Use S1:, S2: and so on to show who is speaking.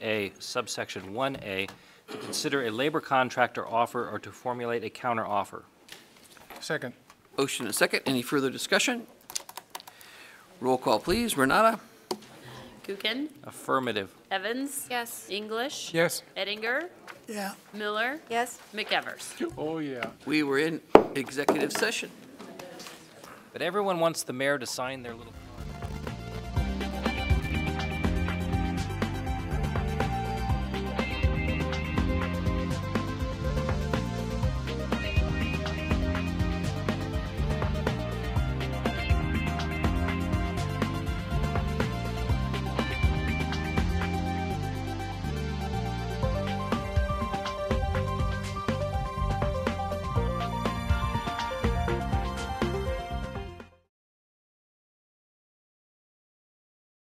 S1: A subsection 1A to consider a labor contract or offer or to formulate a counteroffer.
S2: Second.
S3: Motion and second. Any further discussion? Roll call, please. Renata?
S4: Gookin,
S1: Affirmative.
S4: Evans.
S5: Yes.
S4: English.
S2: Yes.
S4: Eddinger.
S3: Yeah.
S4: Miller.
S5: Yes.
S4: McEvers.
S2: Oh, yeah.
S3: We were in executive session.
S1: But everyone wants the mayor to sign their little...